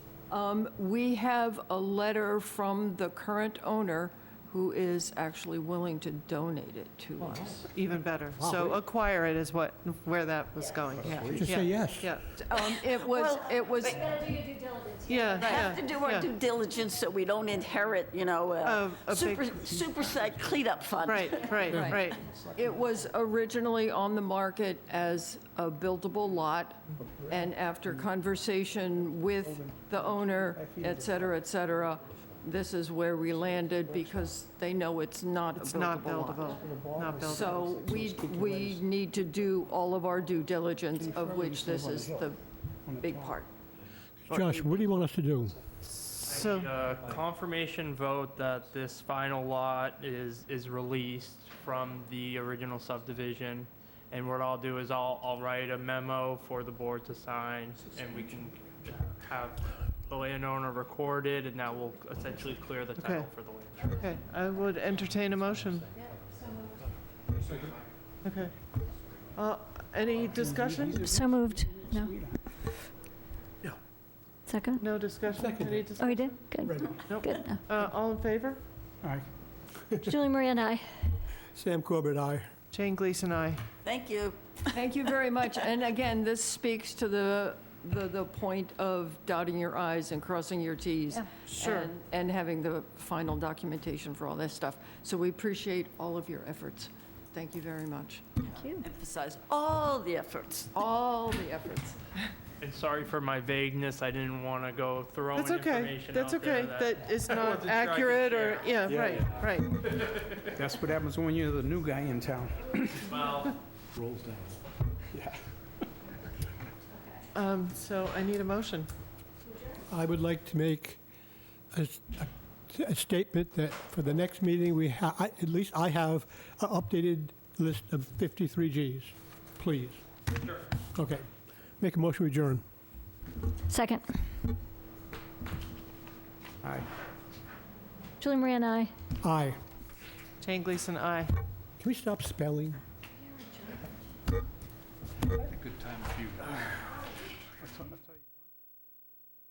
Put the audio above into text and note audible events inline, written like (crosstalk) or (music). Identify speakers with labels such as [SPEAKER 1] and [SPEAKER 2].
[SPEAKER 1] Um, We have a letter from the current owner who is actually willing to donate it to us.
[SPEAKER 2] Even better. So acquire it is what, where that was going, yeah.
[SPEAKER 3] Just say
[SPEAKER 2] Yeah,
[SPEAKER 3] yes.
[SPEAKER 2] Yeah,
[SPEAKER 1] Um, It was, it was,
[SPEAKER 2] yeah.
[SPEAKER 4] We have
[SPEAKER 2] yeah,
[SPEAKER 4] to do our
[SPEAKER 2] yeah.
[SPEAKER 4] due diligence so we don't inherit, you know, a
[SPEAKER 2] A- a
[SPEAKER 4] super,
[SPEAKER 2] big-
[SPEAKER 4] super site cleanup fund.
[SPEAKER 2] Right, right,
[SPEAKER 1] Right.
[SPEAKER 2] right.
[SPEAKER 1] it was originally on the market as a buildable lot, and after conversation with the owner, et cetera, et cetera, this is where we landed because they know it's not a
[SPEAKER 2] It's not
[SPEAKER 1] buildable lot.
[SPEAKER 2] buildable, not buildable.
[SPEAKER 1] So we, we need to do all of our due diligence, of which this is the big part.
[SPEAKER 3] Josh, what do you want us to do?
[SPEAKER 2] So,
[SPEAKER 5] A uh, confirmation vote that this final lot is, is released from the original subdivision. And what I'll do is I'll, I'll write a memo for the board to sign and we can have the landowner recorded and that will essentially clear the title
[SPEAKER 2] Okay.
[SPEAKER 5] for the land.
[SPEAKER 2] okay, I would entertain a motion. Okay. Uh, Any discussion?
[SPEAKER 6] So moved. No. Second?
[SPEAKER 2] No discussion?
[SPEAKER 3] Second.
[SPEAKER 2] Any
[SPEAKER 6] Oh,
[SPEAKER 2] discussion?
[SPEAKER 6] you did? Good.
[SPEAKER 2] Nope.
[SPEAKER 6] Good. No.
[SPEAKER 2] Uh, All in favor?
[SPEAKER 6] Julie Marie and I.
[SPEAKER 3] Sam Corbett, aye.
[SPEAKER 2] Jane Gleason, aye.
[SPEAKER 4] Thank you.
[SPEAKER 1] Thank you very much. And again, this speaks to the, the, the point of dotting your i's and crossing your t's.
[SPEAKER 2] Sure.
[SPEAKER 1] and- And having the final documentation for all this stuff. So we appreciate all of your efforts. Thank you very much.
[SPEAKER 6] Thank you.
[SPEAKER 4] Emphasize all the efforts.
[SPEAKER 1] All the efforts.
[SPEAKER 5] And sorry for my vagueness, I didn't want to go throwing
[SPEAKER 2] That's okay,
[SPEAKER 5] information out
[SPEAKER 2] that's okay,
[SPEAKER 5] there that.
[SPEAKER 2] that is not
[SPEAKER 5] wasn't sure (laughs) I could
[SPEAKER 2] accurate or,
[SPEAKER 5] share.
[SPEAKER 2] yeah, right, right.
[SPEAKER 7] That's what happens when you're the new guy in town.
[SPEAKER 5] Well,
[SPEAKER 2] Um, So I need a motion.
[SPEAKER 3] I would like to make a, s- a- a statement that for the next meeting, we ha, I- at least I have an updated list of 53 Gs, please. Sure. Okay. Make a motion to adjourn.
[SPEAKER 6] Second.
[SPEAKER 7] Aye.
[SPEAKER 6] Julie Marie and I.
[SPEAKER 3] Aye.
[SPEAKER 2] Jane Gleason, aye.
[SPEAKER 3] Can we stop spelling?
[SPEAKER 7] Good time for you. What's on the